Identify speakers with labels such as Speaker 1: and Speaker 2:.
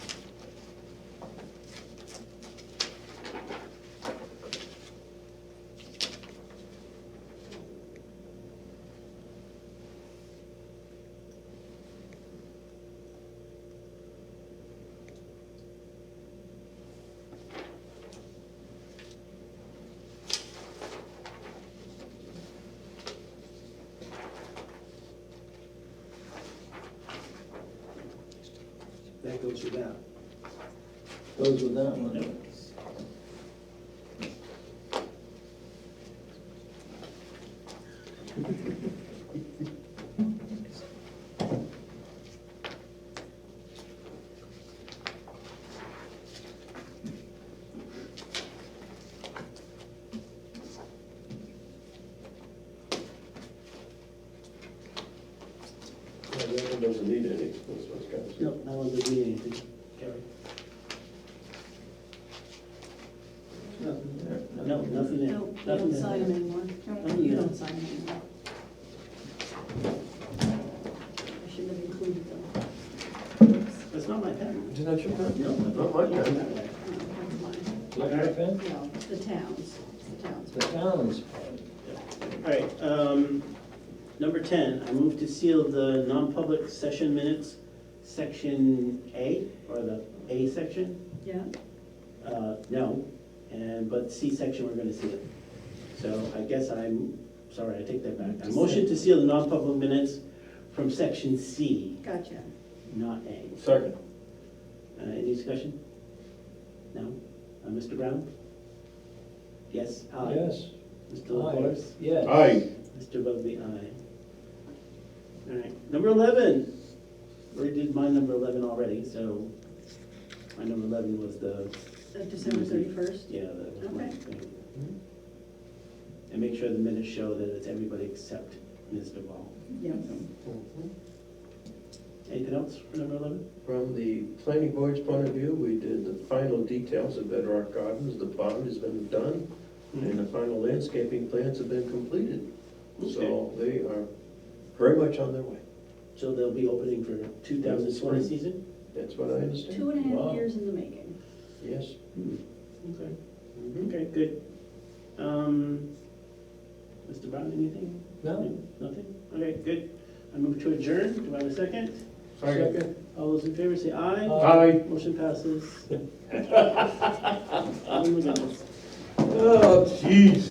Speaker 1: goes without.
Speaker 2: Goes with that one.
Speaker 3: Yeah, that one doesn't need any, that's what's got to
Speaker 1: Nope, that one doesn't need anything, Gary.
Speaker 2: Nothing there.
Speaker 1: No, nothing there,
Speaker 4: No, you
Speaker 1: nothing
Speaker 4: don't sign them
Speaker 1: there.
Speaker 4: anymore.
Speaker 1: No, you
Speaker 4: You
Speaker 1: don't.
Speaker 4: don't sign them anymore. I should have included them. Oops,
Speaker 1: That's not my pen.
Speaker 3: Is that your pen?
Speaker 1: No,
Speaker 3: Not my
Speaker 1: that's
Speaker 3: pen.
Speaker 1: not right.
Speaker 4: no, that's mine.
Speaker 2: Is that your pen?
Speaker 4: No, the towns, It's the towns.
Speaker 2: The town's pen.
Speaker 1: All right, um, number ten, I move to seal the non-public session minutes, section A, or the A section,
Speaker 4: Yeah,
Speaker 1: uh, no, and, but C section, we're gonna seal. So I guess I'm, sorry, I take that back. I motion to seal the non-public minutes from section C,
Speaker 4: gotcha.
Speaker 1: not A.
Speaker 3: Second.
Speaker 1: Uh, any discussion? No? Uh, Mr. Brown? Yes, aye.
Speaker 2: Yes.
Speaker 1: Mr. LaFors?
Speaker 2: Yes.
Speaker 3: Aye.
Speaker 1: Mr. Bugby, aye. All right, number eleven. We did my number eleven already, so my number eleven was the,
Speaker 4: Uh, December thirty-first?
Speaker 1: yeah, that was my
Speaker 4: Okay.
Speaker 1: thing. And make sure the minutes show that it's everybody except Ms. Duval.
Speaker 4: Yeah.
Speaker 1: Anything else for number eleven?
Speaker 3: From the planning board's point of view, we did the final details of Bedrock Gardens, the bond has been done, and the final landscaping plans have been completed. So they are very much on their way,
Speaker 1: So they'll be opening for two thousand twenty season?
Speaker 3: that's what I understand.
Speaker 4: Two and a
Speaker 2: Wow.
Speaker 4: half years in the making.
Speaker 3: Yes. Mm-hmm.
Speaker 1: Okay. Okay, good. Um, Mr. Brown, anything?
Speaker 2: No?
Speaker 1: Nothing? Okay, good. I move to adjourn. Do I have a second?
Speaker 3: Second.
Speaker 1: All those in favor say aye.
Speaker 3: Aye.
Speaker 1: Motion passes. Oh my goodness.
Speaker 3: Oh, jeez.